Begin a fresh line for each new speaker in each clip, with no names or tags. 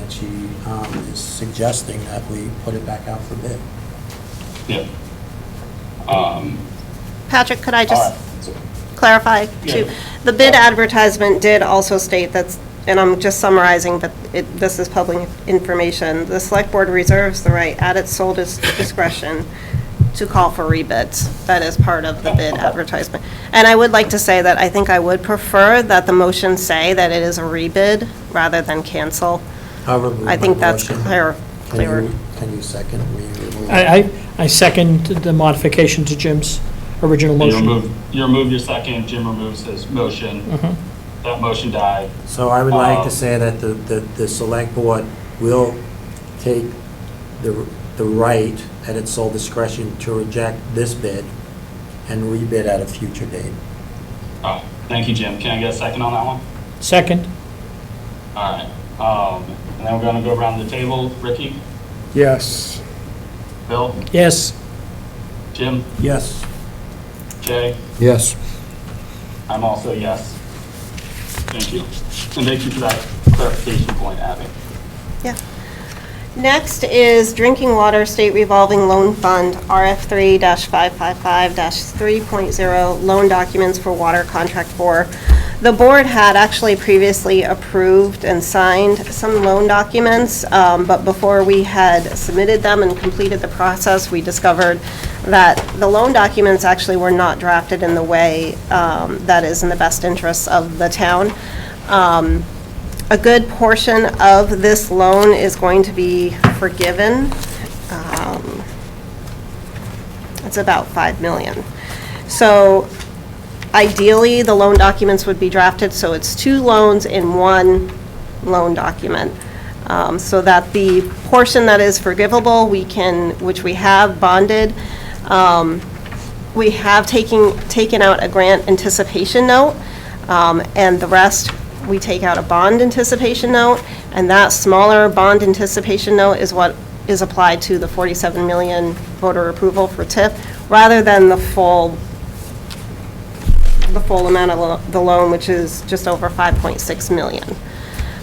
that she um, is suggesting that we put it back out for bid.
Yeah. Um,
Patrick, could I
all
just
right. So-
clarify too?
Yeah.
The bid advertisement did also state that's, and I'm just summarizing, but it, this is public information. The select board reserves the right at its sole dis- discretion to call for rebids. That is part of the bid advertisement. And I would like to say that I think I would prefer that the motion say that it is a rebid rather than cancel.
However, move
I think
my
that's
motion.
clear,
Can
clearer.
you- Can you second? Will you remove-
I, I, I second the modification to Jim's original
You
motion.
remove, you remove your second, Jim removes his motion. That motion died.
So I would like
Um,
to say that the, the, the select board will take the, the right at its sole discretion to reject this bid and rebid at a future date.
Oh, thank you, Jim. Can I get a second on that one?
Second,
All right. Um, and then we're gonna go around the table. Ricky,
Yes.
Bill,
yes,
Jim,
Yes.
Jay,
Yes.
I'm also a yes. Thank you. And thank you for that clarification point, Abby.
Yeah. Next is Drinking Water State Revolving Loan Fund, RF3-555-3.0, loan documents for water contract four. The board had actually previously approved and signed some loan documents, um, but before we had submitted them and completed the process, we discovered that the loan documents actually were not drafted in the way um, that is in the best interests of the town. Um, a good portion of this loan is going to be forgiven. Um, It's about 5 million. So ideally, the loan documents would be drafted, so it's two loans in one loan document, um, so that the portion that is forgivable, we can, which we have bonded, um, we have taken, taken out a grant anticipation note, um, and the rest, we take out a bond anticipation note, and that smaller bond anticipation note is what is applied to the 47 million voter approval for TIF, rather than the full, the full amount of lo- the loan, which is just over 5.6 million.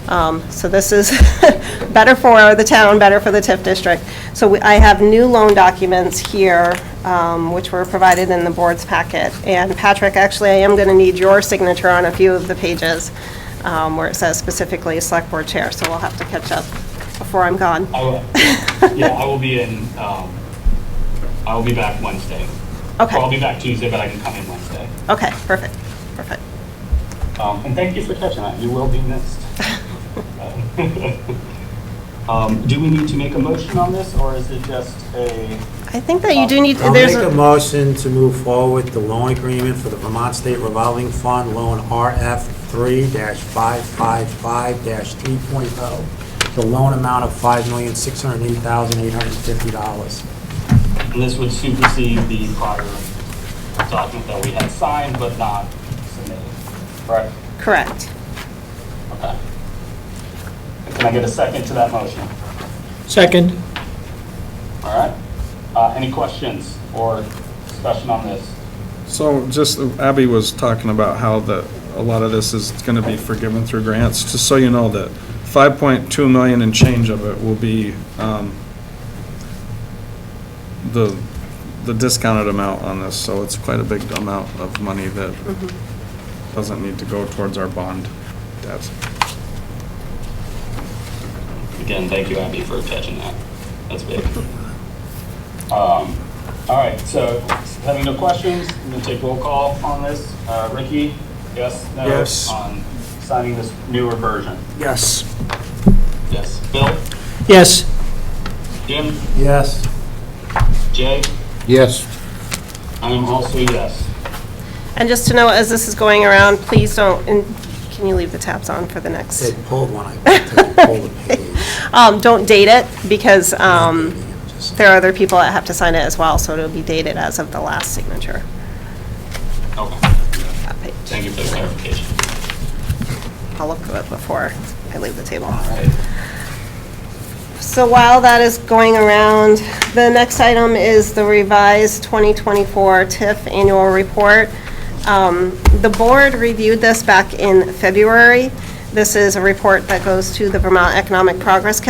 Um, So this is better for the town, better for the TIF district. So we- I have new loan documents here, um, which were provided in the board's packet. And Patrick, actually, I am going to need your signature on a few of the pages um, where it says specifically Select Board Chair, so we'll have to catch up before I'm gone.
I will, yeah, I will be in, um, I will be back Wednesday. Well, I'll
Okay,
be back Tuesday, but I can come in Wednesday.
okay, perfect, perfect.
Um, and thank you for catching that. You will be missed. Um, do we need to make a motion on this, or is it just a,
I think that you do need,
I'll
there's,
make
a-
a motion to move forward with the loan agreement for the Vermont State Revolving Fund, loan RF3-555-3.0. oh. The loan amount of $5,608,850.
and this would supersede the prior document that we had signed but not submitted? Right.
correct.
Okay. Can I get a second to that motion?
second,
All right. Uh, any questions or discussion on this?
So just, Abby was talking about how the, a lot of this is going to be forgiven through grants. Just so you know that 5.2 million and change of it will be um, the, the discounted amount on this. So it's quite a big amount of money that doesn't need to go towards our bond debt.
Again, thank you, Abby, for catching that. That's big. Um, All right, so having no questions, I'm going to take roll call on this. Uh, Ricky, yes, no?
Yes.
On signing this newer version?
Yes.
Yes. Bill?
yes,
Jim?
Yes.
Jay?
Yes.
I am also a yes.
And just to know, as this is going around, please don't, and can you leave the tabs on for the next?
They pulled one, I went to pull the page.
Um, Don't date it, because um,
Just-
there are other people that have to sign it as well, so it'll be dated as of the last signature.
Okay,
That page.
thank you for the clarification.
I'll look through it before I leave the table.
All right.
So while that is going around, the next item is the revised 2024 TIF Annual Report. Um, The board reviewed this back in February. This is a report that goes to the Vermont Economic Progress